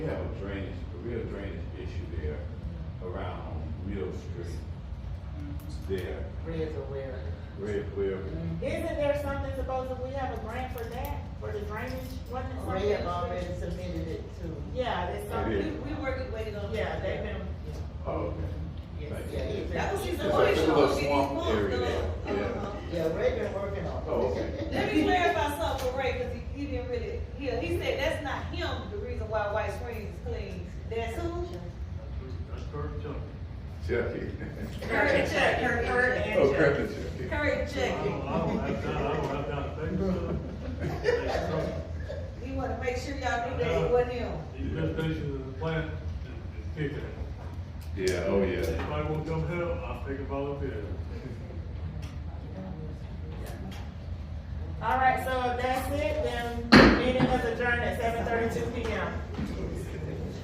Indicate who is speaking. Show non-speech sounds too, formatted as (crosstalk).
Speaker 1: We have a drainage, a real drainage issue there around Mill Street. There,
Speaker 2: Red's aware.
Speaker 1: Red Web,
Speaker 3: Isn't there something supposed that we have a grant for that, for the drainage? Wasn't it something-
Speaker 2: Red already submitted it to.
Speaker 3: Yeah, there's
Speaker 1: It
Speaker 3: something,
Speaker 1: is.
Speaker 4: We were waiting on.
Speaker 3: yeah, they've been,
Speaker 1: oh, okay.
Speaker 2: Yes,
Speaker 1: Thank you.
Speaker 2: yeah, it's-
Speaker 4: That was
Speaker 1: It's
Speaker 4: just
Speaker 1: a
Speaker 4: a
Speaker 1: little swamp area there, yeah.
Speaker 2: Yeah, Ray been working on it.
Speaker 1: Oh, okay.
Speaker 2: (laughs)
Speaker 4: Let me clarify something for Ray, cause he, he didn't really, yeah, he said that's not him, the reason why White Springs is clean, that's who?
Speaker 5: That's correct, Chuck.
Speaker 1: Chucky.
Speaker 4: Curry check, Curry, Curry and
Speaker 1: E. (laughs) Oh,
Speaker 4: check.
Speaker 1: Curtis Chucky.
Speaker 4: Curry
Speaker 5: I
Speaker 4: check.
Speaker 5: don't, I don't have time, I don't have time to take this stuff.
Speaker 4: He wanna make sure y'all knew that it wasn't him.
Speaker 5: The investigation of the plant is is kicking.
Speaker 1: Yeah, oh, yeah.
Speaker 5: Anybody want to come help, I'll take a volunteer.
Speaker 3: all right, so if that's it, then meeting is adjourned at seven thirty-two P M.